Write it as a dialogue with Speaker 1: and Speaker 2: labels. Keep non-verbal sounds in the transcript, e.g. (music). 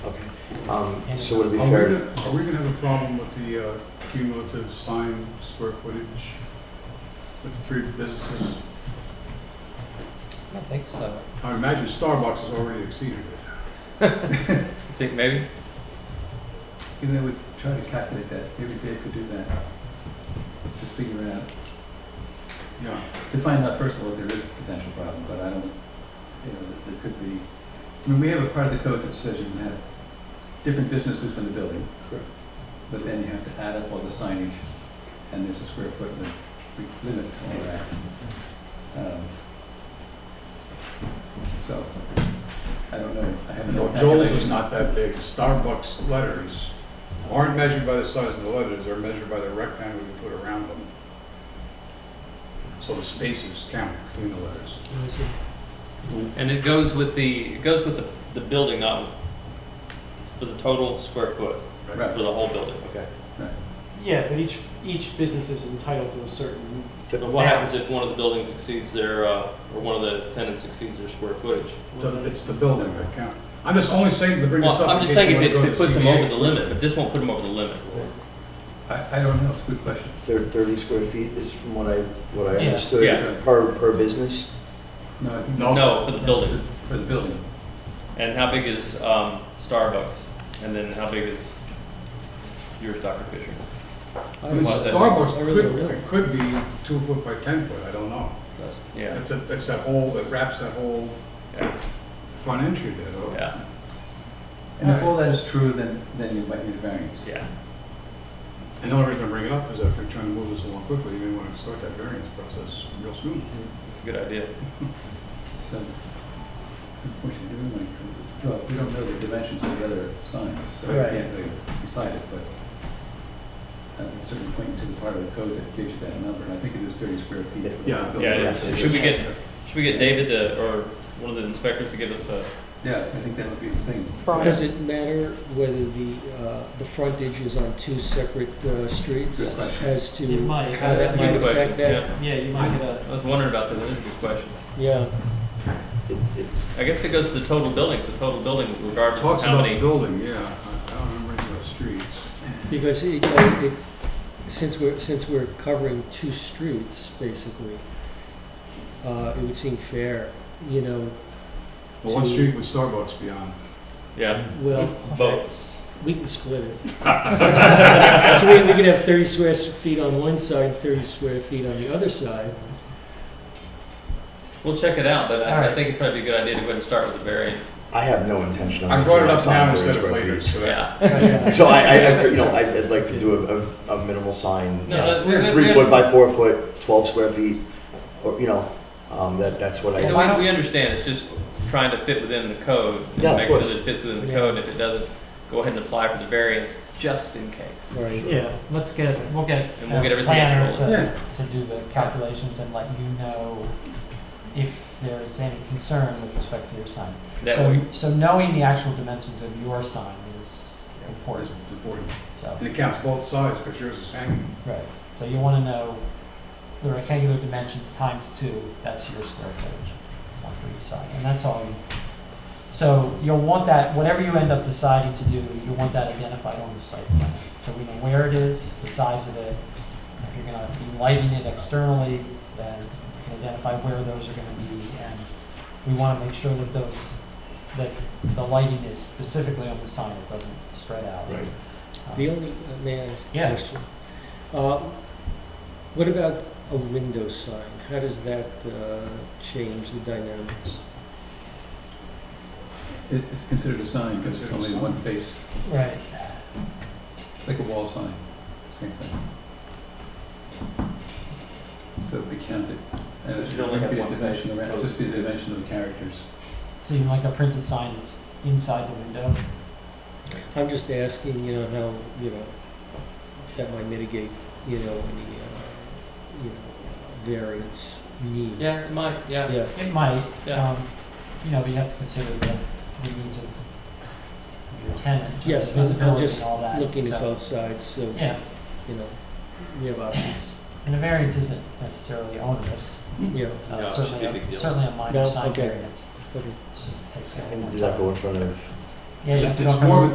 Speaker 1: Um,
Speaker 2: And-
Speaker 1: so would it be
Speaker 3: Are we
Speaker 1: fair? to-
Speaker 3: gonna, are we gonna have a problem with the uh, cumulative sign square footage with the three businesses?
Speaker 2: I don't think so.
Speaker 3: I imagine Starbucks has already exceeded it.
Speaker 2: Think maybe?
Speaker 4: And they would try to calculate that, maybe Dave could do that, to figure out,
Speaker 3: Yeah.
Speaker 4: to find out first of all, if there is a potential problem, but I don't, you know, that there could be. I mean, we have a part of the code that says you can have different businesses in the building,
Speaker 3: Correct.
Speaker 4: but then you have to add up all the signage, and there's a square foot limit, limit to all that. Um, So, I don't know, I haven't.
Speaker 3: No, Joel's is not that big. Starbucks letters aren't measured by the size of the letters, they're measured by the rectangle you put around them. So the spaces count between the letters.
Speaker 2: And it goes with the, it goes with the, the building, not with- for the total square foot,
Speaker 4: Right.
Speaker 2: for the whole building, okay?
Speaker 5: Yeah, but each, each business is entitled to a certain,
Speaker 2: But what happens if one of the buildings exceeds their, uh, or one of the tenants exceeds their square footage?
Speaker 3: Doesn't- It's the building that counts. I'm just only saying to bring this
Speaker 2: Well,
Speaker 3: up.
Speaker 2: I'm
Speaker 3: in
Speaker 2: just
Speaker 3: case you
Speaker 2: saying if
Speaker 3: wanna
Speaker 2: it,
Speaker 3: go
Speaker 2: if
Speaker 3: to
Speaker 2: it puts them over
Speaker 3: CBA.
Speaker 2: the limit, but this won't put them over the limit.
Speaker 4: I, I don't know, it's a good question.
Speaker 1: Thir- Thirty square feet is from what I, what I
Speaker 2: Yeah.
Speaker 1: understood,
Speaker 4: Yeah.
Speaker 1: per, per business.
Speaker 4: No, I think.
Speaker 3: No.
Speaker 2: No, for the building.
Speaker 4: For the building.
Speaker 2: And how big is, um, Starbucks? And then how big is yours, Dr. Fisher?
Speaker 3: I mean,
Speaker 2: Well, then-
Speaker 3: Starbucks
Speaker 2: I really
Speaker 3: could,
Speaker 2: don't know.
Speaker 3: it could be two foot by ten foot, I don't know.
Speaker 2: Yeah,
Speaker 3: It's a, it's that whole, it wraps that whole
Speaker 2: yeah,
Speaker 3: front entry there, though.
Speaker 2: yeah,
Speaker 4: And if all that is true, then, then you might need a variance.
Speaker 2: yeah.
Speaker 3: And the only reason I bring it up is if you're trying to move this along quickly, you may want to start that variance process real soon.
Speaker 2: It's a good idea.
Speaker 4: So unfortunately, we might, come- well, we don't know the dimensions of the other signs, so we
Speaker 5: Right.
Speaker 4: can't really decide it, but I'm certainly pointing to the part of the code that gives you that number, and I think it is thirty square feet. for the
Speaker 3: Yeah.
Speaker 4: building.
Speaker 2: Yeah, it
Speaker 1: is.
Speaker 4: So
Speaker 1: Should we
Speaker 4: it's-
Speaker 2: get- Should we get David to, or one of the inspectors to give us a,
Speaker 4: Yeah, I think that would be the thing.
Speaker 6: Does it matter whether the, uh, the frontage is on two separate uh,
Speaker 4: Good
Speaker 6: streets
Speaker 4: question.
Speaker 6: as to
Speaker 5: It might.
Speaker 6: how that might
Speaker 2: Good question,
Speaker 6: affect that?
Speaker 5: yeah, you might get a,
Speaker 2: I was wondering about that, that is a good question.
Speaker 6: Yeah,
Speaker 1: It, it,
Speaker 2: I guess it goes to the total building, so total building regardless of
Speaker 3: Talks
Speaker 2: how
Speaker 3: about the
Speaker 2: many.
Speaker 3: building, yeah, I I don't remember anything about streets.
Speaker 6: because it, you know, it, since we're, since we're covering two streets, basically, uh, it would seem fair, you know,
Speaker 3: Well, one
Speaker 6: To-
Speaker 3: street would Starbucks be on.
Speaker 2: Yeah,
Speaker 6: well,
Speaker 2: votes.
Speaker 6: we can split it. (laughs) So we, we could have thirty square feet on one side, thirty square feet on the other side.
Speaker 2: We'll check it out, but I, I
Speaker 5: Alright.
Speaker 2: think it'd probably be a good idea to go ahead and start with the variance.
Speaker 1: I have no intention of.
Speaker 3: I brought it
Speaker 1: making
Speaker 3: up
Speaker 1: my sign 30
Speaker 3: now instead of
Speaker 1: square
Speaker 3: later,
Speaker 1: feet.
Speaker 3: so that-
Speaker 2: Yeah.
Speaker 1: So I, I, I- you know, I'd, I'd like to do a, a, a minimal sign,
Speaker 2: No,
Speaker 1: yeah,
Speaker 2: that- we're gonna-
Speaker 1: three
Speaker 2: we're
Speaker 1: foot
Speaker 2: gonna-
Speaker 1: by four foot, twelve square feet, or, you know, um, that, that's what I.
Speaker 5: why don't-
Speaker 2: We, we understand, it's just trying to fit within the code,
Speaker 1: Yeah,
Speaker 2: and
Speaker 1: of
Speaker 2: make sure
Speaker 1: course.
Speaker 2: that it fits within the
Speaker 6: Yeah.
Speaker 2: code, if it doesn't, go ahead and apply for the variance, just in case.
Speaker 6: Right.
Speaker 5: yeah, let's get, we'll get
Speaker 2: And we'll get
Speaker 5: a
Speaker 2: everything
Speaker 5: planner
Speaker 2: controlled.
Speaker 5: to, to do the calculations and let you know if there's any concern with respect to your sign.
Speaker 2: That
Speaker 5: So-
Speaker 2: way,
Speaker 5: So knowing the actual dimensions of your sign is
Speaker 3: It's
Speaker 5: important,
Speaker 3: important.
Speaker 5: so,
Speaker 3: And it counts both sides, because yours is hanging.
Speaker 5: right, so you wanna know the rectangular dimensions times two, that's your square footage on for each side, and that's all you. So you'll want that, whatever you end up deciding to do, you'll want that identified on the site plan, so we know where it is, the size of it. If you're gonna be lighting it externally, then you can identify where those are gonna be, and we wanna make sure that those, that the lighting is specifically on the sign, it doesn't spread out.
Speaker 1: Right.
Speaker 5: Um,
Speaker 6: The only, uh, may I ask a
Speaker 5: Yeah.
Speaker 6: question? Uh, What about a window sign? How does that uh, change the dynamics?
Speaker 4: It, it's considered a sign, because it's
Speaker 3: Considered a sign.
Speaker 4: only one face,
Speaker 5: Right.
Speaker 4: It's like a wall sign, same thing. So we count it, and
Speaker 2: But
Speaker 4: it
Speaker 2: you'd only
Speaker 4: would
Speaker 2: have
Speaker 4: be a
Speaker 2: one
Speaker 4: dimension
Speaker 2: face.
Speaker 4: around, it'd just be the dimension of the characters.
Speaker 5: So you like a printed sign that's inside the window?
Speaker 6: I'm just asking, you know, how, you know, that might mitigate, you know, any, uh, you know, variance need.
Speaker 2: yeah, it might, yeah,
Speaker 6: Yeah,
Speaker 5: It might,
Speaker 2: yeah.
Speaker 5: um, you know, but you have to consider the, the needs of your tenant, and
Speaker 6: Yes, I'm- I'm
Speaker 5: visibility
Speaker 6: just
Speaker 5: and all that.
Speaker 6: looking at
Speaker 5: so-
Speaker 6: both sides, so,
Speaker 5: Yeah,
Speaker 6: you know, we have options.
Speaker 5: and a variance isn't necessarily onerous,
Speaker 6: Yeah,
Speaker 5: uh,
Speaker 2: No, it shouldn't
Speaker 5: certainly,
Speaker 2: be a big
Speaker 5: a-
Speaker 2: deal.
Speaker 5: certainly a minor
Speaker 6: No,
Speaker 5: sign
Speaker 6: okay.
Speaker 5: variance,
Speaker 6: okay.
Speaker 5: it's just it takes a little
Speaker 1: And
Speaker 5: more
Speaker 1: Did that
Speaker 5: time.
Speaker 1: go in front of?
Speaker 5: Yeah, you have to go
Speaker 3: It's
Speaker 5: from-
Speaker 3: more of a